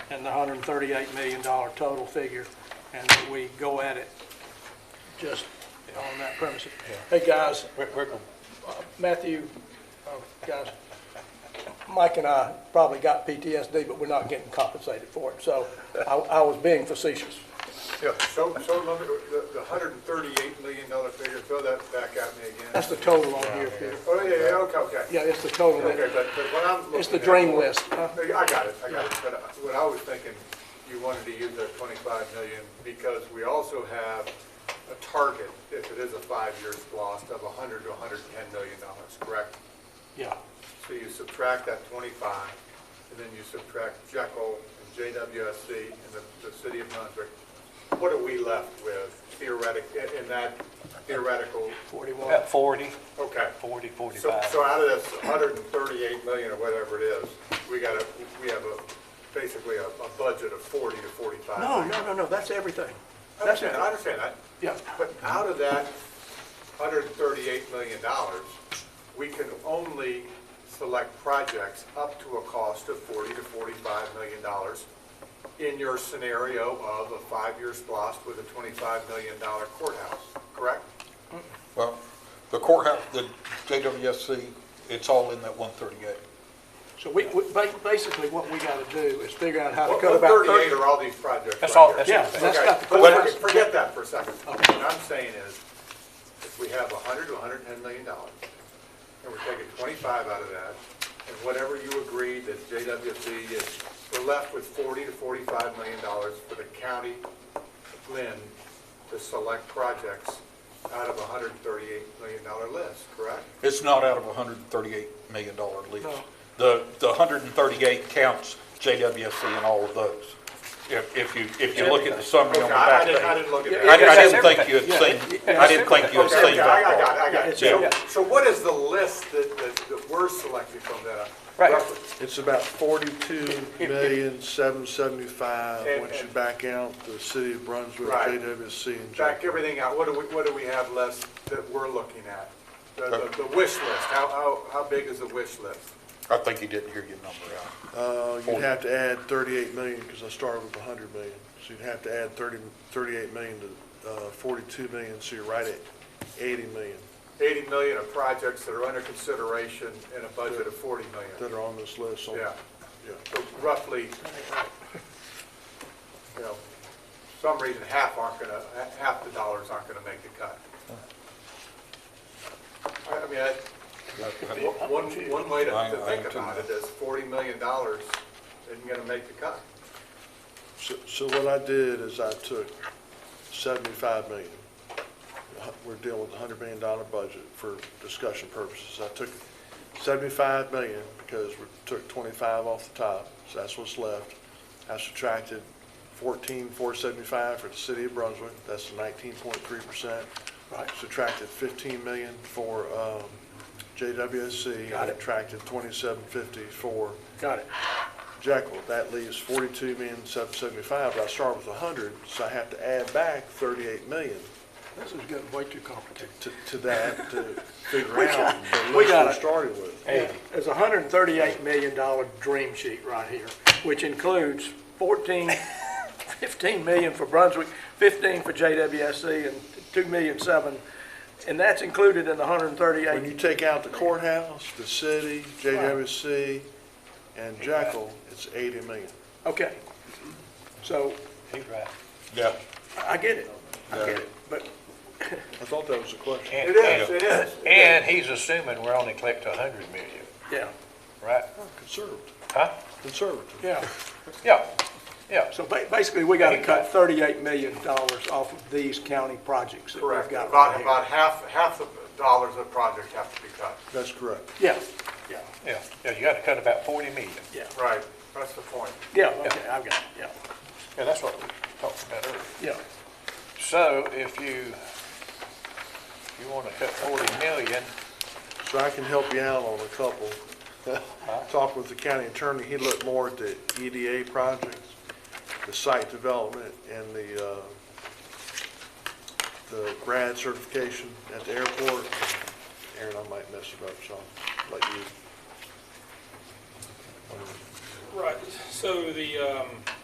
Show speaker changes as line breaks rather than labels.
and the $138 million total figure, and that we go at it just on that premise. Hey, guys, Uh,
We're, we're, gonna-
Matthew, oh, guys, Mike and I probably got PTSD, but we're not getting compensated for it, so I I was being facetious.
Yeah, so, so let me, the, the hundred and thirty-eight million dollar figure, throw that back at me again.
That's the total on here, Peter.
Oh, yeah, yeah, okay, okay.
Yeah, it's the total.
Okay, but, but what I'm looking at.
It's the drain list, huh?
I got it, I got it, but uh, what I was thinking, you wanted to use that twenty-five million because we also have a target, if it is a five-year loss, of hundred to hundred and ten million dollars, correct?
Yeah.
So you subtract that twenty-five, and then you subtract Jekyll and JWSC and the, the city of Brunswick. What are we left with theoretic, in- in that theoretical,
at 40,
okay.
40,
So,
45.
so out of this hundred and thirty-eight million or whatever it is, we got a, we have a, basically a, a budget of forty to forty-five.
No, no, no, no, that's everything.
I
That's it.
understand, I understand that.
Yeah.
But out of that hundred and thirty-eight million dollars, we can only select projects up to a cost of forty to forty-five million dollars in your scenario of a five-year splost with a twenty-five million dollar courthouse, correct?
Well, the courthouse, the JWSC, it's all in that 138.
So we, we- ba- basically, what we got to do is figure out how to
What
cut about 30.
thirty-eight are all these projects
That's
right
all-
here?
that's
Yeah, that's
Okay,
not the
but
courthouse.
forget- forget that for a second.
Okay.
What I'm saying is, if we have 100 to 110 million dollars, and we're taking 25 out of that, and whatever you agree that JWC is, we're left with 40 to 45 million dollars for the county, of Lynn, to select projects out of a 138 million dollar list, correct?
It's not out of a $138 million list.
No.
The, the 138 counts JWSC and all of those, if if you, if you look at the summary
Okay,
on the
I- I
back
didn't- I
page.
didn't look at
I I
that.
Yeah, that's
didn't think you had
everything.
seen,
Yeah,
I didn't think you had
Okay, Oh, okay,
seen
I
that
got it,
part.
I got it.
Yeah.
So- So what is the list that, that that we're selecting from that?
Right.
Roughly?
It's about forty-two million, seven seventy-five,
And-
once you
and-
back out the city of Brunswick,
Right.
JWC and
back
Jack.
everything out, what do we, what do we have left that we're looking at? The, the- the wish list, how, how, how big is the wish list?
I think you didn't hear your number out.
Uh, you'd have to add thirty-eight million, because I started with hundred million. So you'd have to add thirty, thirty-eight million to, uh, forty-two million, so you're right at eighty million
Eighty million of projects that are under consideration in a budget of forty
that
million.
are on this list. so-
Yeah,
Yeah.
so roughly, you know, some reason half aren't gonna, ha- half the dollars aren't gonna make the cut. I, I mean, I, One, one way to
I-
to
I
think
am too.
about it is forty million dollars isn't gonna make the cut.
So, so what I did is I took seventy-five million. Hu- We're dealing with a hundred million dollar budget for discussion purposes. I took seventy-five million because we took twenty-five off the top, so that's what's left. I subtracted fourteen, four seventy-five for the city of Brunswick, that's nineteen point three percent.
Right.
Subtracted fifteen million for, um, JWSC.
Got it.
Subtracted twenty-seven fifty for
Got it.
Jekyll, that leaves forty-two million, seven seventy-five, but I start with hundred, so I have to add back thirty-eight million
This is getting way too complicated.
to, to that to figure
We
out
got- we
the list
got
we
it.
started with.
There's a hundred and thirty-eight million dollar dream sheet right here, which includes 14, 15 million for Brunswick, fifteen for JWSC, E, and two million seven, and that's included in the hundred and
When
thirty-eight.
you take out the courthouse, the city, JWC, and Jekyll, it's eighty million.
Okay. So
He's right.
Yeah,
I get it. I get it. But
I thought that was the question.
And-
It is,
and-
it is.
And he's assuming we're only collecting 100 million,
yeah,
right?
Conservative,
Huh?
conservative.
yeah.
Yeah, yeah.
So ba- basically, we got to cut thirty-eight million dollars off of these county projects that we've
Correct,
got right
about,
here.
about half, half the dollars of project have to be cut.
That's correct.
Yeah, yeah,
Yeah, yeah, you got to cut about 40 million.
yeah,
Right, that's the point.
yeah, okay, I've got it, yeah,
Yeah, that's what we talked about earlier.
yeah.
So if you, you want to cut 40 million,
So I can help you out on a couple. Talked with the county attorney, he looked more at the EDA projects, the site development, and the, uh, the grad certification at the airport. Aaron, I might mess it up, so I'll let you.
Right, so the, um,